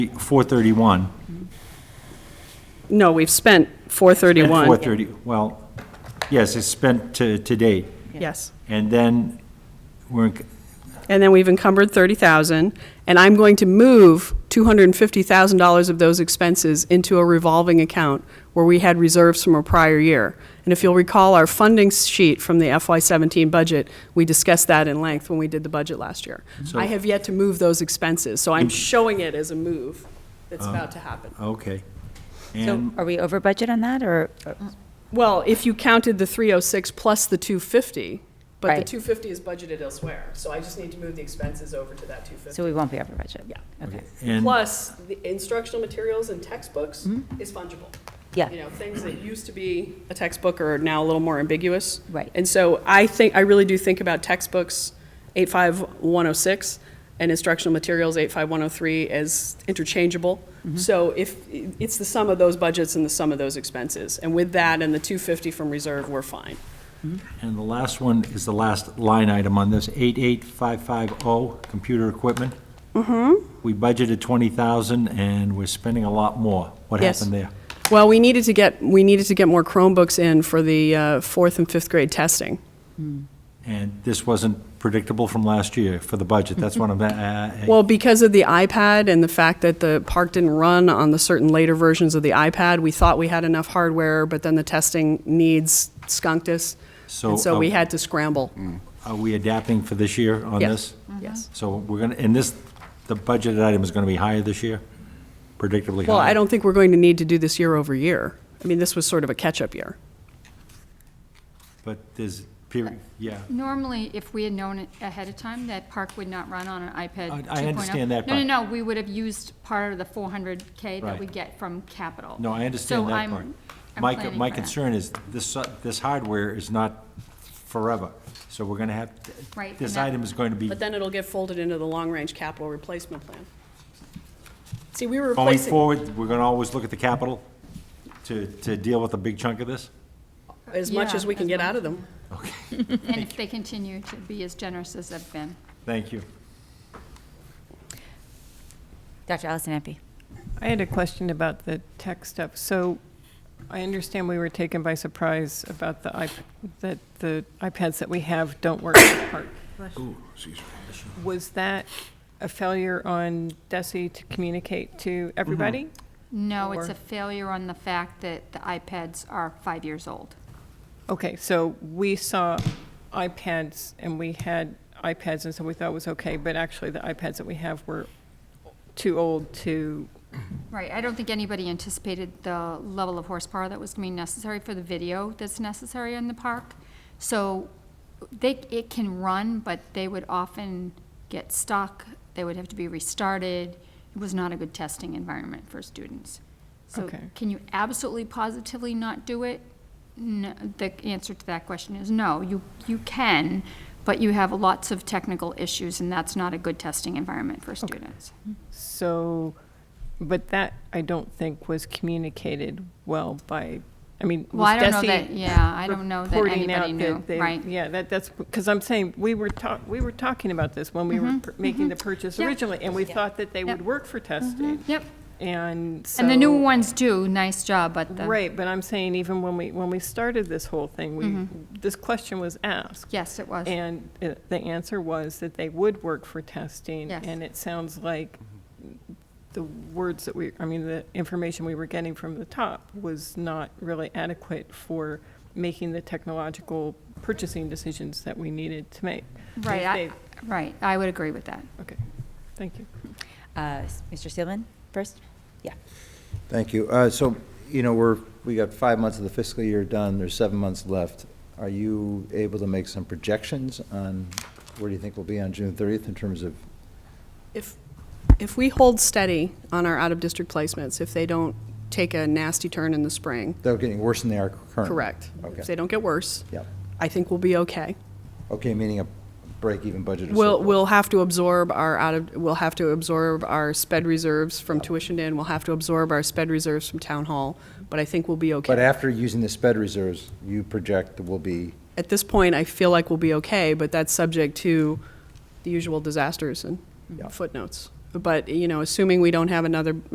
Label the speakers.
Speaker 1: 431.
Speaker 2: No, we've spent 431.
Speaker 1: 430, well, yes, it's spent to, to date.
Speaker 2: Yes.
Speaker 1: And then we're, in-
Speaker 2: And then we've encumbered 30,000, and I'm going to move $250,000 of those expenses into a revolving account where we had reserves from a prior year. And if you'll recall, our funding sheet from the FY17 budget, we discussed that in length when we did the budget last year. I have yet to move those expenses, so I'm showing it as a move that's about to happen.
Speaker 1: okay.
Speaker 3: So
Speaker 1: And,
Speaker 3: are we over budget on that, or?
Speaker 2: Well, if you counted the 306 plus the 250, but the
Speaker 3: Right.
Speaker 2: 250 is budgeted elsewhere, so I just need to move the expenses over to that 250.
Speaker 3: So we won't be over budget?
Speaker 2: Yeah.
Speaker 3: Okay.
Speaker 1: and,
Speaker 2: Plus, the instructional materials and textbooks is fungible.
Speaker 3: Yeah.
Speaker 2: You know, things that used to be a textbook are now a little more ambiguous.
Speaker 3: Right.
Speaker 2: And so I think, I really do think about textbooks, 85106, and instructional materials, 85103, as interchangeable. So if, it's the sum of those budgets and the sum of those expenses. And with that and the 250 from reserve, we're fine.
Speaker 1: and the last one is the last line item on this, 88550, oh, computer equipment.
Speaker 2: Mm-hmm.
Speaker 1: We budgeted 20,000 and we're spending a lot more. What
Speaker 2: Yes.
Speaker 1: happened there?
Speaker 2: Well, we needed to get, we needed to get more Chromebooks in for the uh, fourth and fifth grade testing.
Speaker 1: And this wasn't predictable from last year for the budget, that's one of the, uh,
Speaker 2: Mm-hmm. Well, because of the iPad and the fact that the park didn't run on the certain later versions of the iPad, we thought we had enough hardware, but then the testing needs skunked us.
Speaker 1: So,
Speaker 2: And so we
Speaker 1: uh,
Speaker 2: had to scramble.
Speaker 1: are we adapting for this year on
Speaker 2: Yes, Mm-hmm.
Speaker 1: this?
Speaker 2: yes.
Speaker 1: So we're going to, and this, the budgeted item is going to be higher this year, predictably higher?
Speaker 2: Well, I don't think we're going to need to do this year over year. I mean, this was sort of a catch-up year.
Speaker 1: But there's, period, yeah.
Speaker 4: Normally, if we had known it ahead of time that Park would not run on an iPad 2.0.
Speaker 1: I- I understand that,
Speaker 4: No,
Speaker 1: but-
Speaker 4: no, no, we would have used part of the 400K
Speaker 1: Right.
Speaker 4: that we get from capital.
Speaker 1: No, I
Speaker 4: So
Speaker 1: understand that
Speaker 4: I'm-
Speaker 1: part.
Speaker 4: I'm
Speaker 1: My,
Speaker 4: planning
Speaker 1: my
Speaker 4: for that.
Speaker 1: concern is this, uh, this hardware is not forever, so we're going to have,
Speaker 4: Right,
Speaker 1: this
Speaker 4: and that-
Speaker 1: item is going to be
Speaker 2: But then it'll get folded into the long-range capital replacement plan. See, we were
Speaker 1: Going
Speaker 2: replacing
Speaker 1: forward, we're going to always look at the capital to, to deal with a big chunk of this?
Speaker 2: as much
Speaker 4: Yeah,
Speaker 2: as we can
Speaker 4: as
Speaker 2: get
Speaker 4: much.
Speaker 2: out of them.
Speaker 4: And if they continue to be as generous as they've been.
Speaker 1: Thank you.
Speaker 3: Dr. Allison Ampe?
Speaker 5: I had a question about the tech stuff. So I understand we were taken by surprise about the iP that the iPads that we have don't work in part. Was that a failure on Desi to communicate to everybody?
Speaker 4: Mm-hmm. No, it's
Speaker 5: Or-
Speaker 4: a failure on the fact that the iPads are five years old.
Speaker 5: Okay, so we saw iPads and we had iPads and so we thought it was okay, but actually the iPads that we have were too old to,
Speaker 4: Right, I don't think anybody anticipated the level of horsepower that was going to be necessary for the video that's necessary in the park. So they, it can run, but they would often get stuck, they would have to be restarted. It was not a good testing environment for students. So
Speaker 5: Okay.
Speaker 4: can you absolutely positively not do it? No, the answer to that question is no, you, you can, but you have lots of technical issues, and that's not a good testing environment for students.
Speaker 5: so, but that I don't think was communicated well by, I mean,
Speaker 4: Well, I
Speaker 5: was
Speaker 4: don't know
Speaker 5: Desi
Speaker 4: that- yeah, I don't know that
Speaker 5: reporting
Speaker 4: anybody
Speaker 5: out
Speaker 4: knew,
Speaker 5: that they-
Speaker 4: right.
Speaker 5: Yeah, that, that's, because I'm saying, we were talk, we were talking about this when we
Speaker 4: Mm-hmm,
Speaker 5: were pur- making the purchase
Speaker 4: Yep.
Speaker 5: originally, and we thought that they would
Speaker 4: Yep.
Speaker 5: work for testing,
Speaker 4: Yep.
Speaker 5: and so.
Speaker 4: Mm-hmm. And the new ones do, nice job, but the.
Speaker 5: Right, but I'm saying even when we, when we started this whole thing,
Speaker 4: Mm-hmm.
Speaker 5: we, this question was asked.
Speaker 4: Yes, it was.
Speaker 5: And uh, the answer was that they would work for testing.
Speaker 4: Yes.
Speaker 5: And it sounds like the words that we, I mean, the information we were getting from the top was not really adequate for making the technological purchasing decisions that we needed to make. And if
Speaker 4: Right, I,
Speaker 5: they-
Speaker 4: right, I would agree with that.
Speaker 5: Okay, thank you.
Speaker 3: Uh, s- Mr. Seelman first? Yeah.
Speaker 6: Thank you. Uh, So, you know, we're, we got five months of the fiscal year done, there's seven months left. Are you able to make some projections on where do you think we'll be on June 30th in terms of,
Speaker 2: If, if we hold steady on our out-of-district placements, if they don't take a nasty turn in the spring,
Speaker 6: they're getting worse than they are currently?
Speaker 2: Correct. If they
Speaker 6: Okay.
Speaker 2: don't get worse.
Speaker 6: Yep.
Speaker 2: I think we'll be okay.
Speaker 6: Okay, meaning a break-even budget or
Speaker 2: We'll,
Speaker 6: surplus?
Speaker 2: we'll have to absorb our out of, we'll have to absorb our sped reserves from tuition in, we'll have to absorb our sped reserves from town hall, but I think we'll be
Speaker 6: But
Speaker 2: okay.
Speaker 6: after using the sped reserves, you project that we'll be,
Speaker 2: At this point, I feel like we'll be okay, but that's subject to the usual disasters and
Speaker 6: Yeah.
Speaker 2: footnotes. But, you know, assuming we don't have another